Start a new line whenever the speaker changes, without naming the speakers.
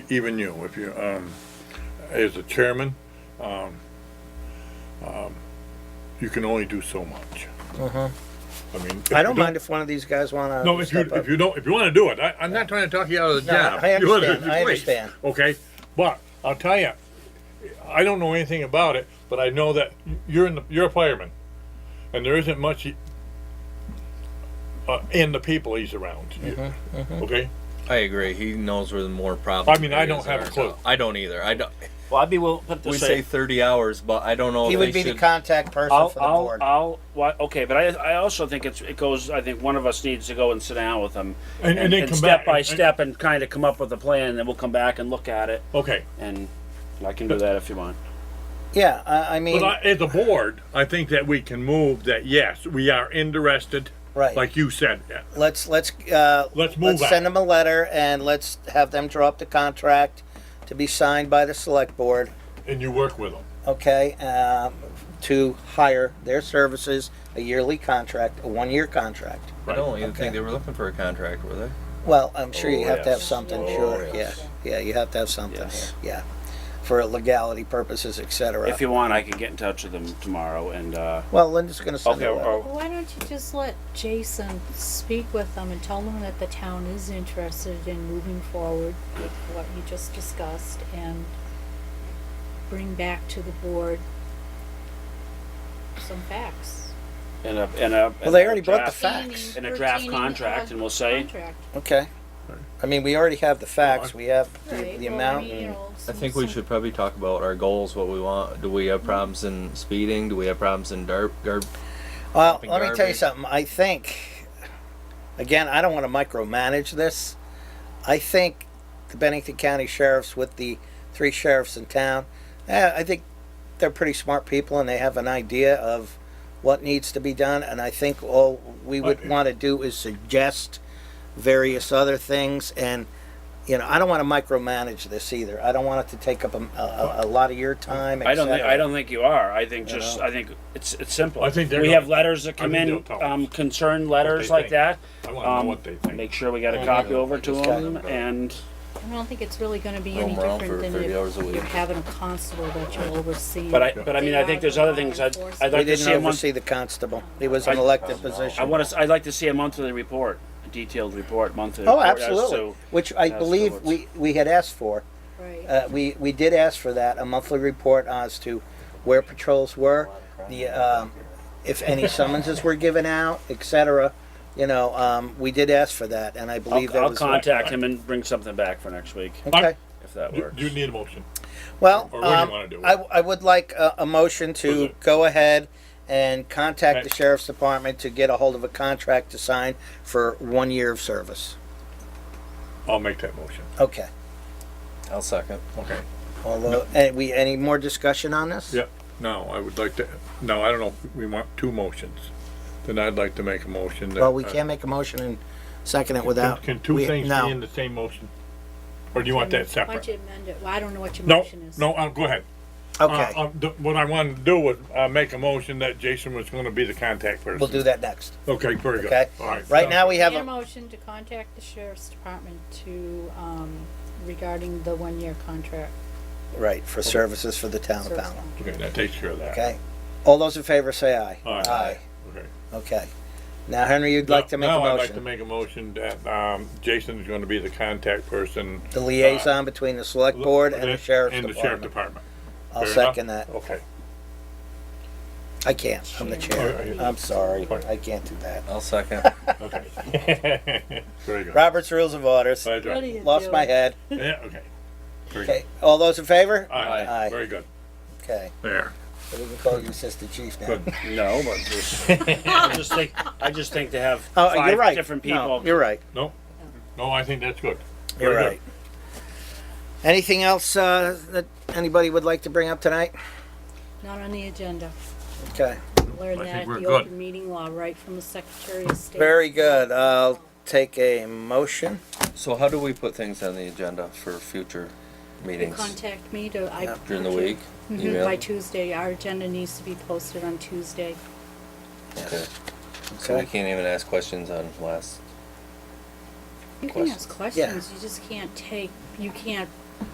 even you, if you, um, as the chairman, um, um, you can only do so much. I mean. if
Uh-huh. I
you
don't mind if one of these guys wanna
No, if you,
step up.
if you don't, if you wanna do it, I, I'm not trying to talk you out of the
No,
job.
I
You wanna-
understand, I
please.
understand.
Okay, but I'll tell you, I don't know anything about it, but I know that you're in the, you're a fireman, and there isn't much uh, in the people he's around.
Mm-hmm,
Okay,
I agree. He knows where the more
I
problems.
mean, I don't have a clue.
I don't either. I don't.
Well, I'd be willing, put it
We
this
say
way.
thirty hours, but I don't know.
He
if
would
they
be the
should-
contact person
I'll,
for the
I'll,
board.
I'll, why, okay, but I, I also think it's, it goes, I think one of us needs to go and sit down with them.
And- and then come
Step
back
by
and-
step and kind of come up with a plan, then we'll come back and look at it,
okay.
and I can do that if you want.
Yeah, I, I mean,
But I, as a board, I think that we can move that. Yes, we are interested.
Right.
Like you said.
let's, let's, uh,
Let's move
Let's
on.
send them a letter and let's have them draw up the contract to be signed by the select board.
And you work with them.
okay, um, to hire their services, a yearly contract, a one-year contract.
I don't even
Okay.
think they were looking for a contract, were they?
Well, I'm sure you
Oh,
have to have
yes.
something,
Oh,
sure, yeah,
yes.
yeah, you have to have something,
Yes.
here, yeah, for legality purposes, et cetera.
If you want, I can get in touch with them tomorrow, and, uh,
Well, Linda's gonna send
okay,
it out.
or-
Why don't you just let Jason speak with them and tell them that the town is interested in moving forward with what you just discussed and bring back to the board some facts.
and a, and a.
Well, they already
and a
brought the
draft-
facts,
And a draft
Retaining, uh,
contract, and we'll say-
contract,
okay. I mean, we already have the facts, we have the
right?
the
Well, I
amount,
mean, you
and-
know,
I
some-
think we
some-
should probably talk about our goals, what we want. Do we have problems in speeding? Do we have problems in dark? Gar-
well,
dumping
let me tell you
garbage.
something, I think, again, I don't wanna micromanage this. I think the Bennington County Sheriffs with the three sheriffs in town, eh, I think they're pretty smart people and they have an idea of what needs to be done. And I think all we would
Okay.
want to do is suggest various other things. And, you know, I don't want to micromanage this either. I don't want it to take up a, a, a lot of your time. et
I don't think,
cetera.
I don't think you are, I think just,
know.
I think it's, it's simple.
I think they're
We
gonna-
have letters that
I
come
think
in,
they'll tell us
um, concerned letters
they
like
think.
that.
I want to
Um,
know what they think. uh,
Make sure we got a
Yeah,
copy
yeah.
over to
Just
got
them,
it.
and
I don't think it's really gonna be
Roam
any
around for
different than
30 hours a
if
week.
you're having a constable that you're overseeing.
But I, but I mean, I think there's other things I'd, I'd
We
like to
didn't
see a month,
oversee the constable. He was
I-
an elected position.
I want to, I'd like to see a monthly report, a detailed report, monthly.
Oh,
report as
absolutely.
to-
Which I
as to
believe
what's-
we, we had asked for.
Right.
Uh, we, we did ask for that, a monthly report as to where patrols were, the, um, if any summonses were given out, et cetera. You know, um, we did ask for that, and I believe
I'll,
that
I'll
was.
contact him and bring something back for next week,
Okay,
if that
Do
works.
do you need a motion?
well,
Or what do you
um,
wanna do?
I, I would like a, a motion
Was
to
it-
go ahead and contact the
Okay.
sheriff's department to get a hold of a contract to sign for one year of service.
I'll make that motion.
Okay,
I'll second.
Okay.
although, and we, any more discussion on this?
Yep. Now, I would like to, no, I don't know, if we want two motions. Then I'd like to make a motion that.
Well, we
uh,
can't make a motion and second it
can-
without.
Can two
we-
things
no.
be in the same motion? Or do you want that
Why don't
separate?
you amend it? Well, I don't know what your
No,
motion is.
no, uh, go ahead. Uh,
Okay,
uh, th- What I wanted to do was, uh, make a motion that Jason was gonna be the contact person.
we'll do that next.
Okay, very good.
Okay.
All right.
Right now, we have
Need a
a,
motion to contact the sheriff's department to, um, regarding the one-year contract.
right, for services for the town of
service
Pownell.
contract.
Okay, that takes care of that.
Okay? All those in favor say aye.
Aye. Okay.
Okay. Now, Henry, you'd like to make a
Now, I'd like to
motion?
make a motion that, um, Jason's gonna be the contact person.
The liaison between the select board and the sheriff's
And the sheriff
department.
department.
I'll
Fair enough?
second that.
Okay.
I can't, I'm the chair.
Alright.
I'm sorry,
Fine.
I can't do that.
I'll second.
Okay. Very good.
Robert's Rules of Orders,
Right,
What are
right.
you
lost my
doing?
head.
Yeah, okay. Very good.
Okay, all those in favor?
Aye,
Aye.
very good.
Okay,
There.
so we can call you Assistant Chief now.
Good.
No, but just, I just think, I just think to have
Oh, you're
five
right.
different
No,
people.
You're right.
No, no, I think that's good.
You're
Very
right. Anything else uh, that anybody would like to bring up tonight?
Not on the agenda.
Okay,
Learn
I think
that
we're
at the
good.
open meeting law, right from the Secretary of State.
very good. I'll take a motion.
So how do we put things on the agenda for future
You
meetings
Contact me to, I.
during the week?
Mhm,
Email?
By Tuesday, our agenda needs to be posted on Tuesday.
Okay. So we
Okay,
can't even ask questions on last.
You can ask
Questions.
questions, you just can't take, you can't